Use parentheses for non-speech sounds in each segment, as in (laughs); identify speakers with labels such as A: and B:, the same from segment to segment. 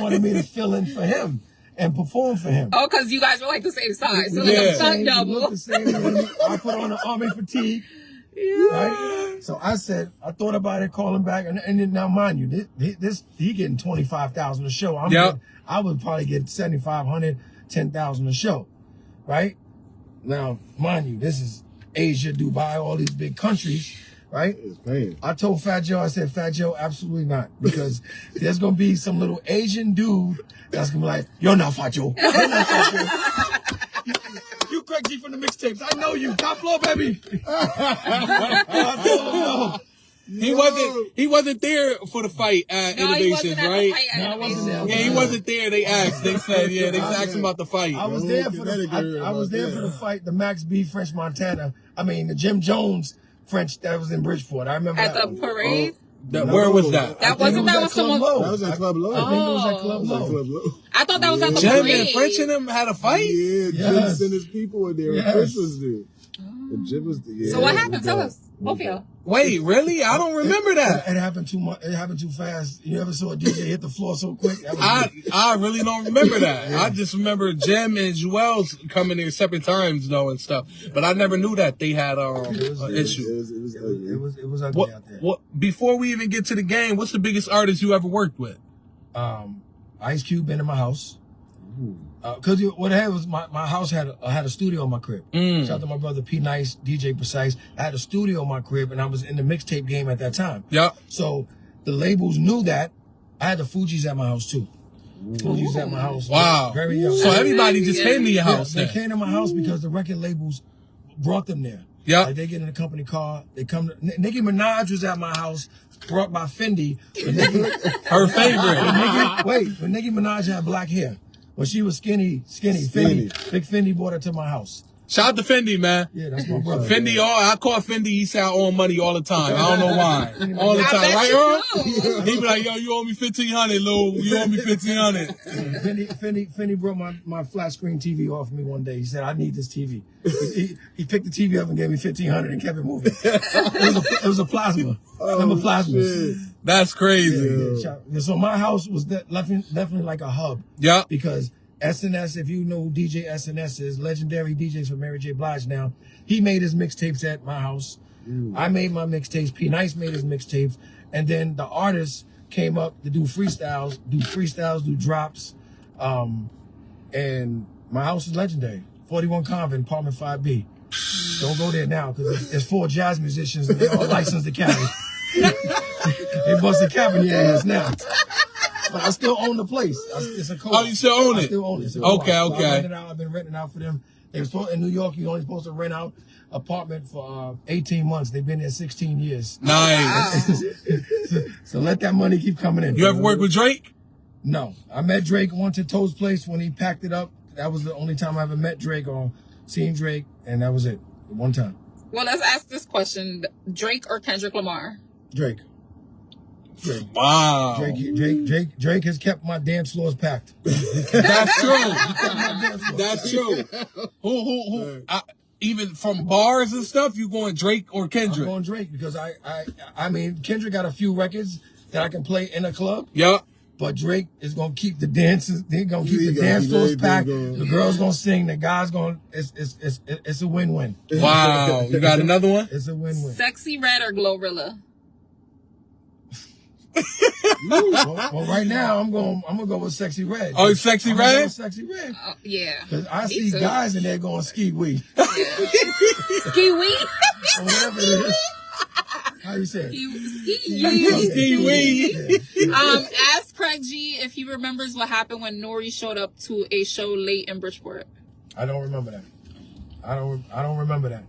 A: wanted me to fill in for him and perform for him.
B: Oh, because you guys were like the same size. So like a
A: Yeah.
B: stunt
A: Same- look
B: double.
A: the same. I put on an army fatigue, right? So I said, I thought about it, calling back, and, and then now mind you, thi- thi- this, he getting twenty five thousand a show. I'm
C: Yep.
A: getting- I would probably get 7,500, 10,000 a show, right? Now mind you, this is Asia, Dubai, all these big countries, right?
D: It's paying.
A: I told Fat Joe, I said, Fat Joe, absolutely not. Because (laughs) there's gonna be some little Asian dude that's gonna be like, You're not Fat Joe. You're not Fat Joe. (laughs) You Craig G from the mixtapes. I know you. Top floor, baby. And I told him no.
C: He wasn't. He wasn't there for the fight. Uh,
B: No, he wasn't
C: innovations,
B: at
C: right?
B: the fight.
A: No, I wasn't
B: animation.
A: there.
C: Yeah, he wasn't there. They asked. They said, yeah, they asked him about the fight.
A: I was
D: Yo,
A: there for
D: Connecticut
A: the I, I was
D: about
A: there
D: that.
A: for the fight, the Max B French Montana. I mean the Jim Jones French that was in Bridgeport. I remember
B: At
A: that
B: the
A: one.
B: parade?
C: That- where was
D: I
C: that?
D: think
B: That wasn't
A: I
B: that
A: think it
B: was
A: at Club
B: someone. Oh.
A: Low.
D: That was at Club Low.
A: I think it was at
D: That
A: Club
D: was at
A: Low.
D: Club Low.
B: I thought that was at the
C: Jim
B: parade.
C: and French and him had a fight.
D: Yeah, Jim
A: Yes.
D: sent his people in there.
A: Yes.
D: Chris was there. And Jim was there.
B: So
D: Yeah,
B: what
D: it was
B: happened? Tell
D: bad.
B: us. Both of y'all.
C: Wait, really? I don't remember that.
A: It happened too much. It happened too fast. You ever saw a DJ hit the floor so quick? That was
C: I I really don't remember that. I just remember Jim and Joel's coming there separate times though and stuff. But I never knew that they had um an
D: It was, it
C: issue.
D: was, it was
A: It was,
D: ugly.
A: it was it was ugly
C: What,
A: out there.
C: what before we even get to the game, what's the biggest artist you ever worked with?
A: Um, Ice Cube been in my house. Because what happened was my, my house had a, had a studio in my crib.
C: Mm.
A: Shout out to my brother P Nice, DJ Precise. I had a studio in my crib, and I was in the mixtape game at that time.
C: Yep.
A: So the labels knew that. I had the Fuji's at my house too. Fuji's at my house.
C: Wow.
A: Very young.
C: So everybody just came to your
A: Yeah,
C: house
A: They
C: then.
A: came to my house because the record labels brought them there.
C: Yeah.
A: Like they get in a company car. They come. To, N- Nicki Minaj was at my house, brought by Fendi. When
C: (laughs)
A: Nicki,
C: Her favorite.
A: Nicki- wait, when Nicki Minaj had black hair, when she was skinny, skinny, Fendi,
D: Skinny.
A: Big Fendi brought her to my house.
C: Shout out to Fendi, man.
A: Yeah, that's
C: (laughs)
A: my brother.
C: Fendi, all I call Fendi, he say I owe him money all the time. I don't know why. All the
B: I
C: time,
B: bet
C: right,
B: you
C: Earl? He be like, yo, you owe me fifteen hundred, Lou. You owe me fifteen hundred.
A: Fendi, Fendi, Fendi brought my, my flat screen TV off me one day. He said, "I need this TV." He, he picked the TV up and gave me fifteen hundred and kept it moving. it, was a, it was a plasma.
D: Oh,
A: Remember plasmas?
C: That's crazy.
A: Yeah, shout- yeah, So my house was de- definitely, definitely like a hub
C: Yep.
A: because SNS, if you know who DJ SNS is, legendary DJs for Mary J. Blige now, he made his mixtapes at my house. I made my mixtapes. P Nice made his mixtapes. And then the artists came up to do freestyles, do freestyles, do drops. Um, and my house is legendary. 41 Convent, apartment 5B. Don't go there now because there's four jazz musicians and they're all licensed to carry. (laughs) they busted cap in your ass now. But I still own the place. I- It's a co-op.
C: Oh, you still own
A: I
C: it?
A: still own it. It's a
C: Okay,
A: co-op. So
C: okay.
A: I rented out. I've been renting out for them. They were supposed, in New York, you're only supposed to rent out apartment for uh, 18 months. They've been there 16 years.
C: Nice.
A: So let that money keep coming in.
C: You ever work with Drake?
A: No, I met Drake once at Toad's place when he packed it up. That was the only time I ever met Drake or seen Drake, and that was it. One time,
B: Well, let's ask this question: Drake or Kendrick Lamar?
A: Drake, Drake,
C: Wow.
A: Drake, Drake, Drake, Drake has kept my dance floors packed.
C: That's true.
A: Dance floors. (laughs)
C: That's true. Who who who I, even from bars and stuff, you going Drake or
A: I'm
C: Kendrick?
A: on Drake because I, I, I mean, Kendrick got a few records that I can play in a club,
C: Yup.
A: but Drake is gonna keep the dances. They're gonna keep
D: He
A: the
D: gonna
A: dance
D: keep
A: floors
D: everything
A: packed.
D: going.
A: The girls gonna sing. The guys gonna. It's, it's, it's, it's a win-win.
D: (laughs)
C: Wow. You got another one?
A: It's a win-win.
B: (laughs) Sexy Red or Glorilla?
A: well, well, right now I'm going. I'm gonna go with sexy red.
C: Oh, Sexy
A: I'm gonna go
C: Red?
A: with sexy red.
B: Oh, yeah.
A: 'Cause I
B: Me
A: see
B: too.
A: guys in there going ski
B: (laughs)
A: wee
B: Ski wee.
A: or whatever it is. How you say? it?
B: Ski
A: Okay.
B: wee.
C: Ski wee.
A: Yeah.
B: Um, ask Craig G if he remembers what happened when Nori showed up to a show late in Bridgeport.
A: I don't remember that. I don't. I don't remember that.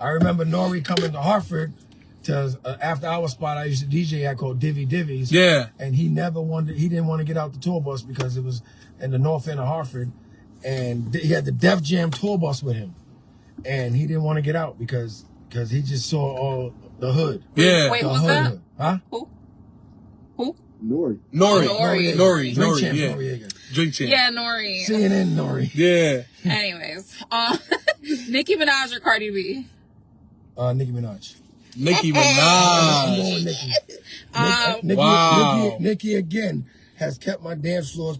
A: I remember Nori coming to Hartford to an after hour spot I used to DJ at called Divvy Divvies.
C: Yeah.
A: And he never wanted. He didn't want to get out the tour bus because it was in the north end of Hartford, and th- he had the Def Jam tour bus with him, and he didn't want to get out because because he just saw all the hood.
C: Yeah.
B: Wait,
A: the
B: who's
A: hood,
B: that?
A: hood. Huh?
B: Who? Who?
D: Nori.
C: Nori.
B: Noriega.
C: Nori.
A: Drink
C: Nori.
A: champ
C: Yeah.
A: Noriega.
C: Drink champ.
B: Yeah, Nori.
A: CNN Nori.
C: Yeah.
B: Anyways, um, (laughs) Nicki Minaj or Cardi B?
A: Uh, Nicki Minaj.
C: Nicki
A: I'm
C: Minaj.
A: (laughs) going with Nicki. Nick-
B: Um,
A: Nicki,
C: Wow.
A: Nicki, Nicki again has kept my dance floors